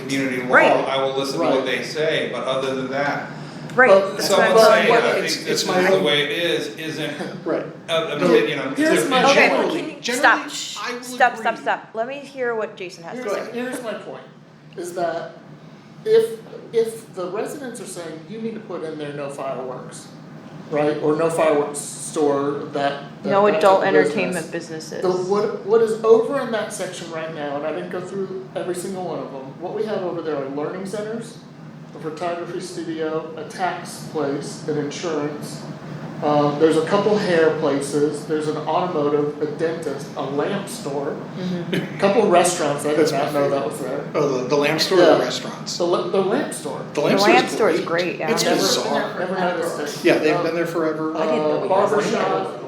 community law, Right. I will listen to what Right. they say, but other than that, Right, Well, that's what I'm someone Well, saying, saying. what- I think it's- this it's is my- the way it is, isn't Right. an No, opinion. I'm- here's my it's- Okay, Generally- can you- generally, stop, shh, I will stop, stop, agree. stop, let me hear what Jason has to Here's, say. here's my point, is that if, if the residents are saying, you need to put in there no fireworks, right, or no fireworks store that, that- No that type adult of business, entertainment businesses. The, what, what is over in that section right now, and I didn't go through every single one of them, what we have over there are learning centers, a photography studio, a tax place, an insurance. Uh, there's a couple hair places, there's an automotive, a dentist, a lamp store, a couple restaurants, I did That's my not know that was there. Oh, the, the lamb store or Yeah. the restaurants? The, la- the lamp store. The The lamb store lamp is store is great. great, yeah. It's Never- bizarre. Never noticed it. Yeah, they've been there forever. Um, I didn't know Uh, we had barber lamp shop,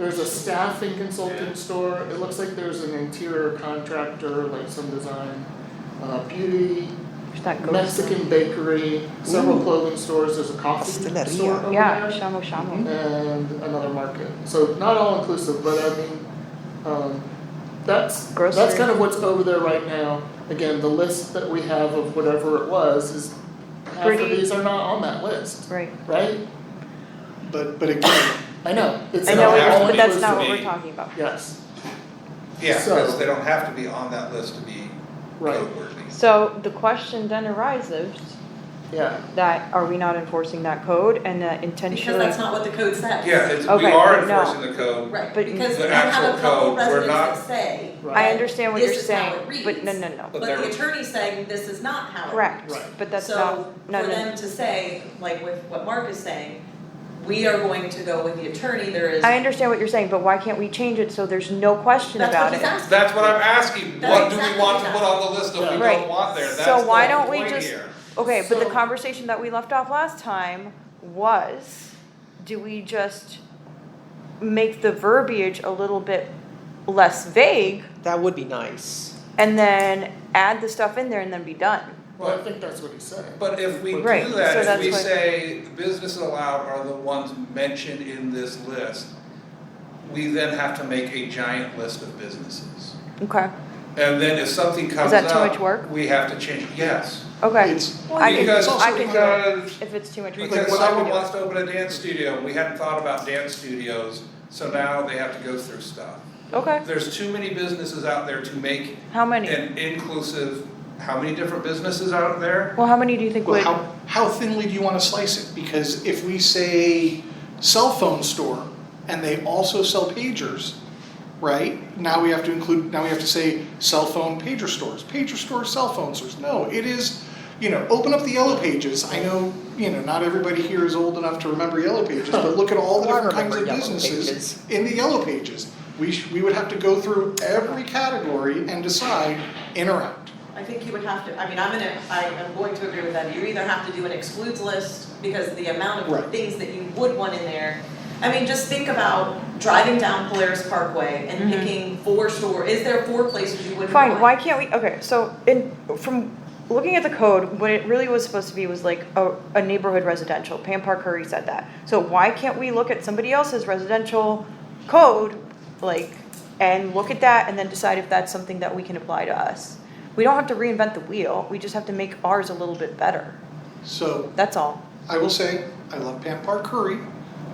there's a staffing consulting store, it looks like there's an interior contractor, like some design. Uh, beauty, There's not ghosts. Mexican bakery, several Ooh. clothing stores, there's a coffee Pasteleria. store over there. Yeah, shamu shamu. And another market, so not all inclusive, but I mean, um, that's, that's Grocery. kind of what's over there right now. Again, the list that we have of whatever it was is, half of Pretty- these are not on that list, Right, right? But, but again, I know, it's I an know, not it's- all but that's not what inclusive. we're talking about. Yes, Yeah, because So- they don't have to be on that list to be right, noteworthy. So the question then arises, yeah, that are we not enforcing that code and that Because intentionally? that's not what the code says. Yeah, it's, we Okay, are no. enforcing the code. Right, But- because The we have actual a couple code, we're residents not- that say, I right, understand what This you're is how saying, it but no, no, no, But but they're- the attorney's saying this is not how it. correct, Right. but that's not, no, So for no, them to say, like with what Mark is saying, we are going to go with the attorney, there is. I understand what you're saying, but why can't we change it so there's no question That's what about it? he's asking. That's what I'm asking, That's what do we exactly want to that. put on the list if we Right. don't want there, So that's the why don't we point just- here. Okay, but the So- conversation that we left off last time was, do we just make the verbiage a little bit less vague That would be nice. and then add the stuff in there and then be done? well, I think that's what he's saying. But if we do Right, so that, if that's we what- say businesses allowed are the ones mentioned in this list, we then have to make a giant list of businesses. Okay, And then if something comes that too up, much work? we have to change, yes. okay. it's, I can, Because, I can do it, because, if it's too much work. because I can someone do it. wants to open a dance studio, we hadn't thought about dance studios, so now they have to go through stuff. Okay, There's too many businesses out there to make how many? an inclusive, how many different businesses out there? Well, how many do you think well, would? how, how thinly do you wanna slice it? Because if we say cell phone store and they also sell pagers, right? Now we have to include, now we have to say cell phone pager stores, pager stores, cell phone stores. No, it is, you know, open up the yellow pages. I know, you know, not everybody here is old enough to remember yellow pages, but look at all the Oh, I different kinds remember of Yellow businesses Pages. in the yellow pages. We sh- we would have to go through every category and decide in or out. I think you would have to, I mean, I'm gonna, I am going to agree with that, you either have to do an excludes list, because the amount Right. of things that you would want in there. I mean, just think about driving down Polaris Parkway and Mhm. picking four store, is there four places you wouldn't want? Fine, why can't we, okay, so in, from looking at the code, what it really was supposed to be was like a, a neighborhood residential, Pam Curry said that. So why can't we look at somebody else's residential code, like, and look at that and then decide if that's something that we can apply to us? We don't have to reinvent the wheel, we just have to make ours a little bit better, So that's all. I will say, I love Pam Park Curry.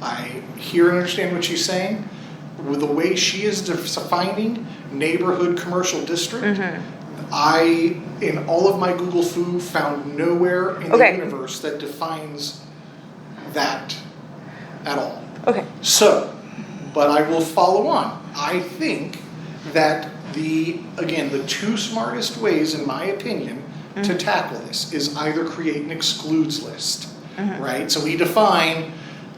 I hear and understand what she's saying. With the way she is defining neighborhood commercial district, Mm-hmm. I, in all of my Google foo, found nowhere in Okay. the universe that defines that at all. Okay, So, but I will follow on. I think that the, again, the two smartest ways, in my opinion, to tackle this is either create an excludes list, right? So we define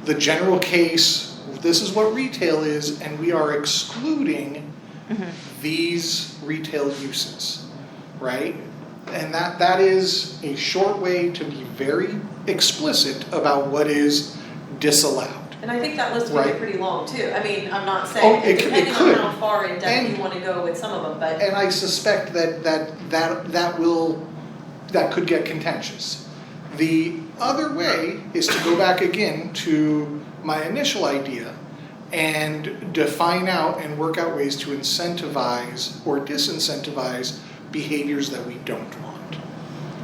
the general case, this is what retail is, and we are excluding these retail uses, right? And that, that is a short way to be very explicit about what is disallowed. And I think that list would be Right. pretty long too, I mean, I'm not Oh, it saying, c- it depending on could. how far in And- depth you wanna go with some of them, but. And I suspect that that that that will that could get contentious. The other way is to go back again to my initial idea and define out and work out ways to incentivize or disincentivize behaviors that we don't want.